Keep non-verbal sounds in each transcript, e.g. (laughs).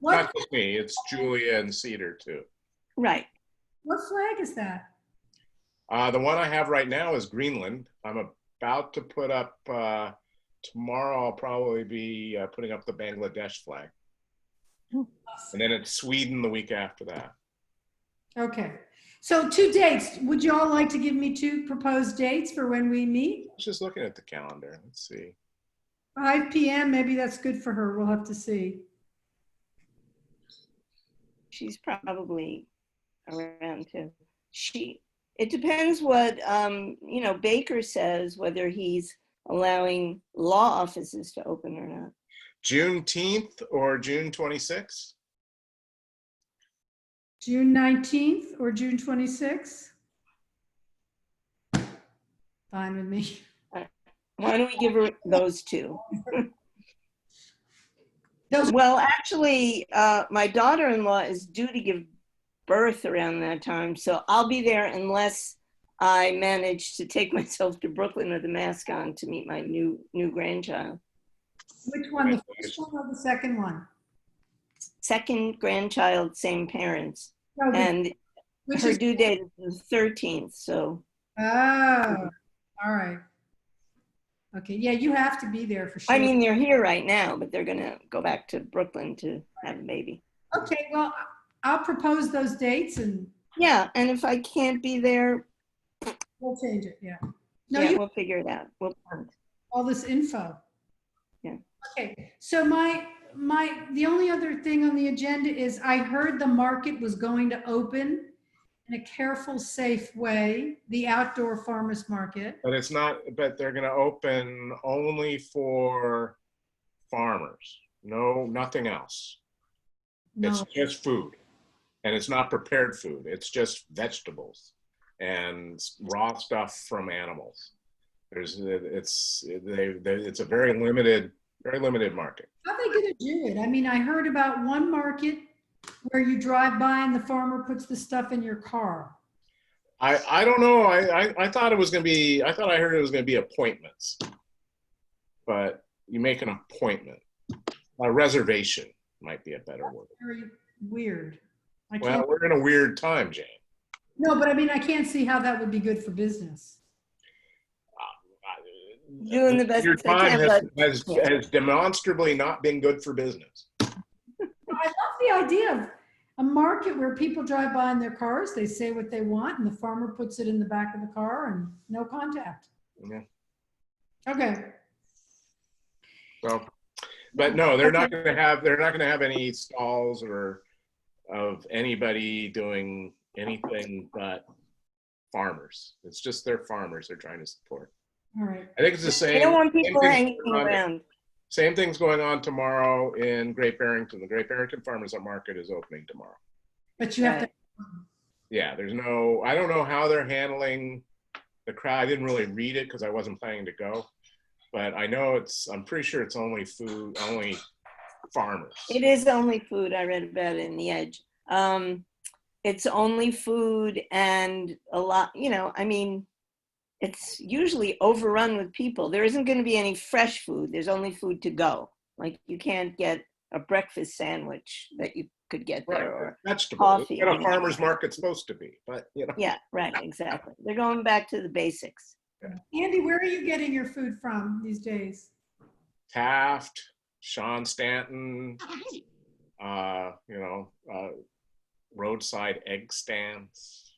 What, Not just me, it's Julia and Cedar too. Right. what flag is that? Uh, the one I have right now is Greenland. I'm about to put up, uh, tomorrow I'll probably be uh, putting up the Bangladesh flag. And then it's Sweden the week after that. Okay, so two dates. Would you all like to give me two proposed dates for when we meet? I was Just looking at the calendar, let's see. 5 PM, maybe that's good for her. We'll have to see. She's probably around too. She, it depends what, um, you know, Baker says, whether he's allowing law offices to open or not. Juneteenth or June 26th? June 19th or June 26th? Fine with me. Why don't we give her those two? Those- (laughs) Well, actually, uh, my daughter-in-law is due to give birth around that time, so I'll be there unless I manage to take (laughs) myself to Brooklyn with a mask on to meet my new, new grandchild. Which one, the first one or the second one? Second grandchild, same parents. No, the- And Which her is, due date is the 13th, so oh, all right. Okay, yeah, you have to be there for sure. I mean, they're here right now, but they're gonna go back to Brooklyn to have a baby. Okay, well, I'll propose those dates and Yeah, and if I can't be there, we'll change it, yeah. No, yeah, you, we'll figure it out. We'll, all this info. Yeah. Okay, so my, my, the only other thing on the agenda is I heard the market was going to open in a careful, safe way, the outdoor farmer's market. But it's not, but they're gonna open only for farmers. No, nothing else. It's No, just food. And it's not prepared food. It's just vegetables and s- raw stuff from animals. There's, it's, they, they, it's a very limited, very limited market. how they gonna do it? I mean, I heard about one market where you drive by and the farmer puts the stuff in your car. I, I don't know. I, I, I thought it was gonna be, I thought I heard it was gonna be appointments. But you make an appointment. A reservation might be a better word. Very weird. I Well, can't, we're in a weird time, Jane. no, but I mean, I can't see how that would be good for business. I- Doing the best Your I can, time has, has, has demonstrably not been good for business. I love the idea of a market where people drive by in their cars, they say what they want, and the farmer puts it in the back of the car and no contact. Yeah. Okay, So, but no, they're not gonna have, they're not gonna have any stalls or of anybody doing anything but farmers. It's just their farmers they're trying to support. all right. I think it's the They don't same, want people thing hanging on it. around. same thing's going on tomorrow in Great Barrington. The Great Barrington Farmers Market is opening tomorrow. But you have to, yeah, there's no, I don't know how they're handling the crowd. I didn't really read it because I wasn't planning to go. But I know it's, I'm pretty sure it's only food, only farmers. It is only food. I read about it in The Edge. Um, it's only food and a lot, you know, I mean, it's usually overrun with people. There isn't going to be any fresh food. There's only food to go. Like you can't get a breakfast sandwich that you could get there. Right, Or, vegetables. coffee. What a farmer's market's supposed to be, but you know, yeah, right, exactly. They're going back to the basics. Andy, where are you getting your food from these days? Taft, Sean Stanton, uh, you know, uh, roadside egg stands.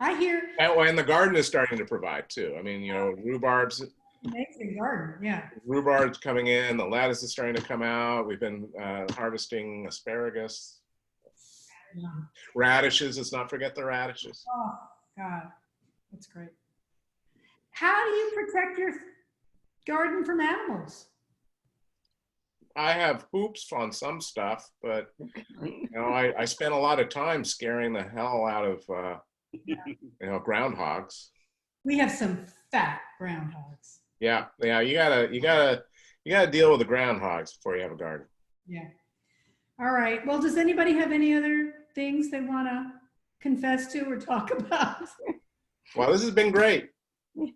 I hear Oh, and the garden is starting to provide too. I mean, you know, rhubarb's amazing garden, yeah. rhubarb's coming in, the lettuce is starting to come out. We've been uh, harvesting asparagus, Yum. radishes. Let's not forget the radishes. Oh, God, that's great. How do you protect your garden from animals? I have hoops on some stuff, but you know, I, I spent a lot of time scaring the hell out of uh, you know groundhogs. We have some fat groundhogs, Yeah, yeah. You gotta, you gotta, you gotta deal with the groundhogs before you have a garden. yeah. All right, well, does anybody have any other things they want to confess to or talk (laughs) about? Well, this has been great. Yeah.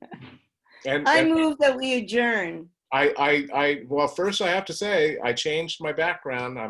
And, I and move that we adjourn. I, I, I, well, first I have to say I changed my background. I'm